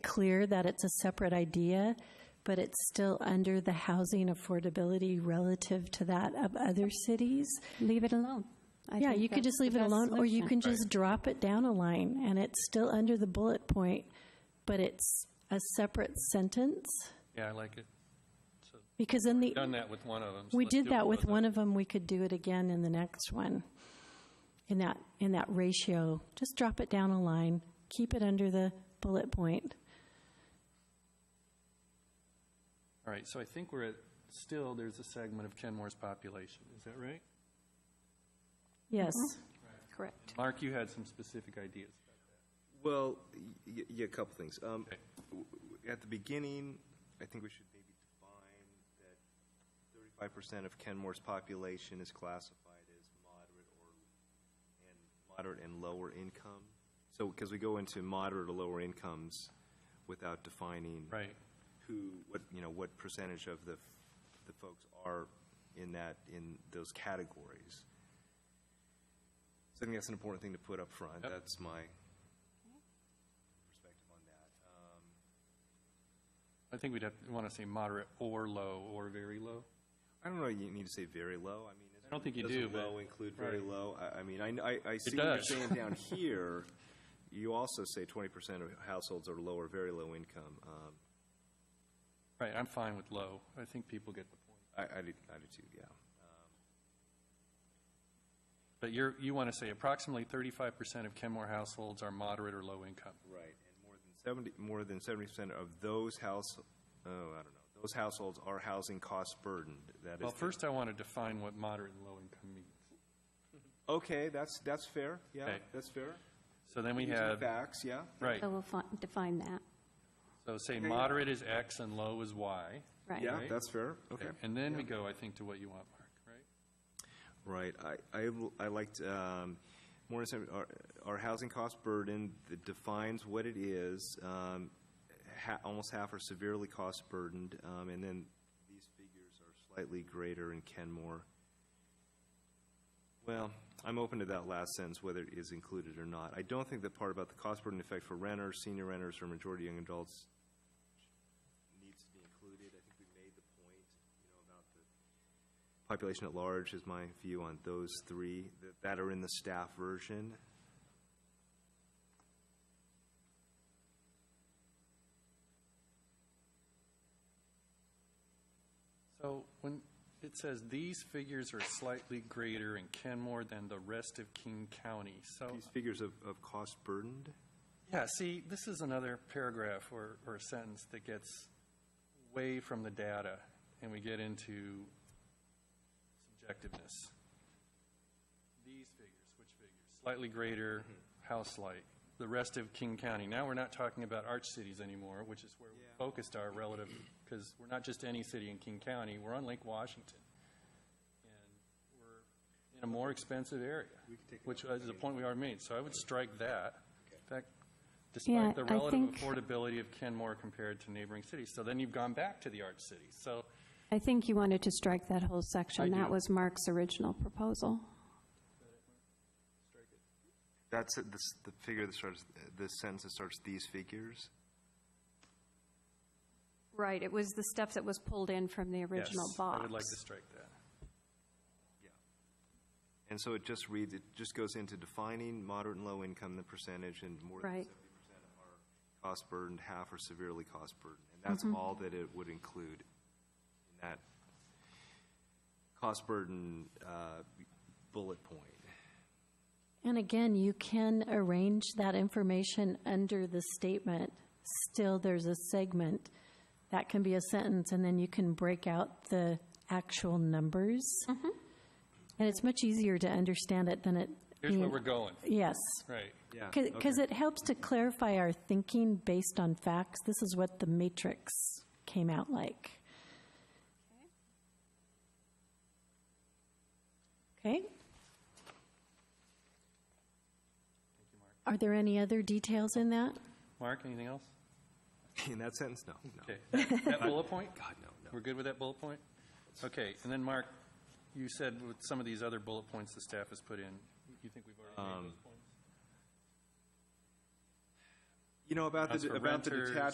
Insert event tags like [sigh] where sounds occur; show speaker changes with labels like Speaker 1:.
Speaker 1: clear that it's a separate idea, but it's still under the housing affordability relative to that of other cities.
Speaker 2: Leave it alone. I
Speaker 1: Yeah,
Speaker 2: think
Speaker 1: you could
Speaker 2: that's
Speaker 1: just leave
Speaker 2: the
Speaker 1: it
Speaker 2: best
Speaker 1: alone, or you can
Speaker 2: solution.
Speaker 1: just drop it down a line, and it's still under the bullet point, but it's a separate sentence,
Speaker 3: Yeah, I like it.
Speaker 1: because in the,
Speaker 3: Done that with one of them.
Speaker 1: we did that with one of them, we could do it again in the next one. In that, in that ratio, just drop it down a line, keep it under the bullet point.
Speaker 3: All right, so I think we're at, still, there's a segment of Kenmore's population. Is that right?
Speaker 1: Yes,
Speaker 2: Uh-huh. Correct.
Speaker 3: Mark, you had some specific ideas.
Speaker 4: Well, y- y- yeah, a couple things. Um,
Speaker 3: Okay.
Speaker 4: w- w- At the beginning, I think we should maybe define that 35% of Kenmore's population is classified as moderate or, and moderate and lower income. So, because we go into moderate or lower incomes without defining
Speaker 3: Right.
Speaker 4: who, what, you know, what percentage of the, the folks are in that, in those categories. So I think that's an important thing to put up front.
Speaker 3: Yep.
Speaker 4: That's my perspective on that. Um,
Speaker 3: I think we'd have, want to say moderate or low or very low.
Speaker 4: Uh, I don't know, you need to say very low, I mean. is-
Speaker 3: I don't think you do,
Speaker 4: Doesn't
Speaker 3: but-
Speaker 4: low include very
Speaker 3: right.
Speaker 4: low? I, I mean, I, I- I see what you're
Speaker 3: does. [laughs]
Speaker 4: saying down here. You also say twenty percent of households are low or very low income. Um,
Speaker 3: Right, I'm fine with low. I think people get the point.
Speaker 4: I, I do, I do too, yeah.
Speaker 3: But you're, you want to say approximately 35% of Kenmore households are moderate or low income.
Speaker 4: Right, and more than seventy, more than seventy percent of those house, oh, I don't know, those households are housing cost burdened. That is.
Speaker 3: Well,
Speaker 4: the-
Speaker 3: first I want to define what moderate and low income means.
Speaker 4: Okay, that's, that's fair, yeah,
Speaker 3: Okay.
Speaker 4: that's fair.
Speaker 3: So then we
Speaker 4: Using
Speaker 3: have,
Speaker 4: Facts, yeah.
Speaker 3: right,
Speaker 2: So we'll fi- define that,
Speaker 3: so say
Speaker 4: Okay.
Speaker 3: moderate is X and low is Y.
Speaker 2: right?
Speaker 4: Yeah,
Speaker 3: Right.
Speaker 4: that's fair, okay.
Speaker 3: And then we go, I think, to what you want, Mark, right?
Speaker 4: Right, I, I, l- I liked, um, more, than seven- our, our housing cost burden that defines what it is. Um, ha, almost half are severely cost burdened, um, and then these figures are slightly greater in Kenmore. Well, I'm open to that last sentence, whether it is included or not. I don't think the part about the cost burden effect for renters, senior renters, or majority young adults needs to be included. I think we made the point, you know, about the population at large is my view on those three that- that are in the staff version.
Speaker 3: So when it says these figures are slightly greater in Kenmore than the rest of King County, so,
Speaker 4: These figures of, of cost burdened?
Speaker 3: yeah, see, this is another paragraph or, or a sentence that gets way from the data, and we get into subjectiveness. These figures, which figures? Slightly greater, house light, the rest of King County. Now, we're not talking about arch cities anymore, which is where we focused our relative, because we're not just any city in King County, we're on Lake Washington. And we're in a more expensive area, which is the point we already made, so I would strike that. In fact,
Speaker 2: Yeah,
Speaker 3: despite the
Speaker 2: I
Speaker 3: relative
Speaker 2: think-
Speaker 3: affordability of Kenmore compared to neighboring cities. So then you've gone back to the arch cities, so.
Speaker 2: I think you wanted to strike that whole section.
Speaker 3: I
Speaker 2: That
Speaker 3: do.
Speaker 2: was Mark's original proposal.
Speaker 4: That's the, s- the figure that starts, the sentence that starts these figures?
Speaker 2: Right, it was the stuff that was pulled in from the original
Speaker 3: Yes,
Speaker 2: box.
Speaker 3: I would like to strike that.
Speaker 4: And so it just reads, it just goes into defining moderate and low income, the percentage, and more than
Speaker 2: Right.
Speaker 4: seventy percent are cost burdened, half are severely cost burdened. And that's all that it would include in that cost burden, uh, bullet point.
Speaker 1: and again, you can arrange that information under the statement. Still, there's a segment, that can be a sentence, and then you can break out the actual numbers.
Speaker 3: Mm-hmm.
Speaker 1: And it's much easier to understand it than it.
Speaker 3: Here's where
Speaker 2: Mm.
Speaker 1: being-
Speaker 3: we're going,
Speaker 1: Yes.
Speaker 3: right.
Speaker 4: Yeah.
Speaker 1: Because it helps to clarify our thinking based on facts. This is what the matrix came out like. Okay? Are there any other details in that?
Speaker 3: Mark, anything else?
Speaker 4: [laughs] In that sentence, no, no.
Speaker 2: [laughs]
Speaker 3: Okay, that that bullet point?
Speaker 4: God, no, no.
Speaker 3: We're good with that bullet point? Okay, and then, Mark, you said with some of these other bullet points the staff has put in, you think we've already made those points?
Speaker 4: You know, about
Speaker 3: As for
Speaker 4: the, about the
Speaker 3: renters,
Speaker 4: detached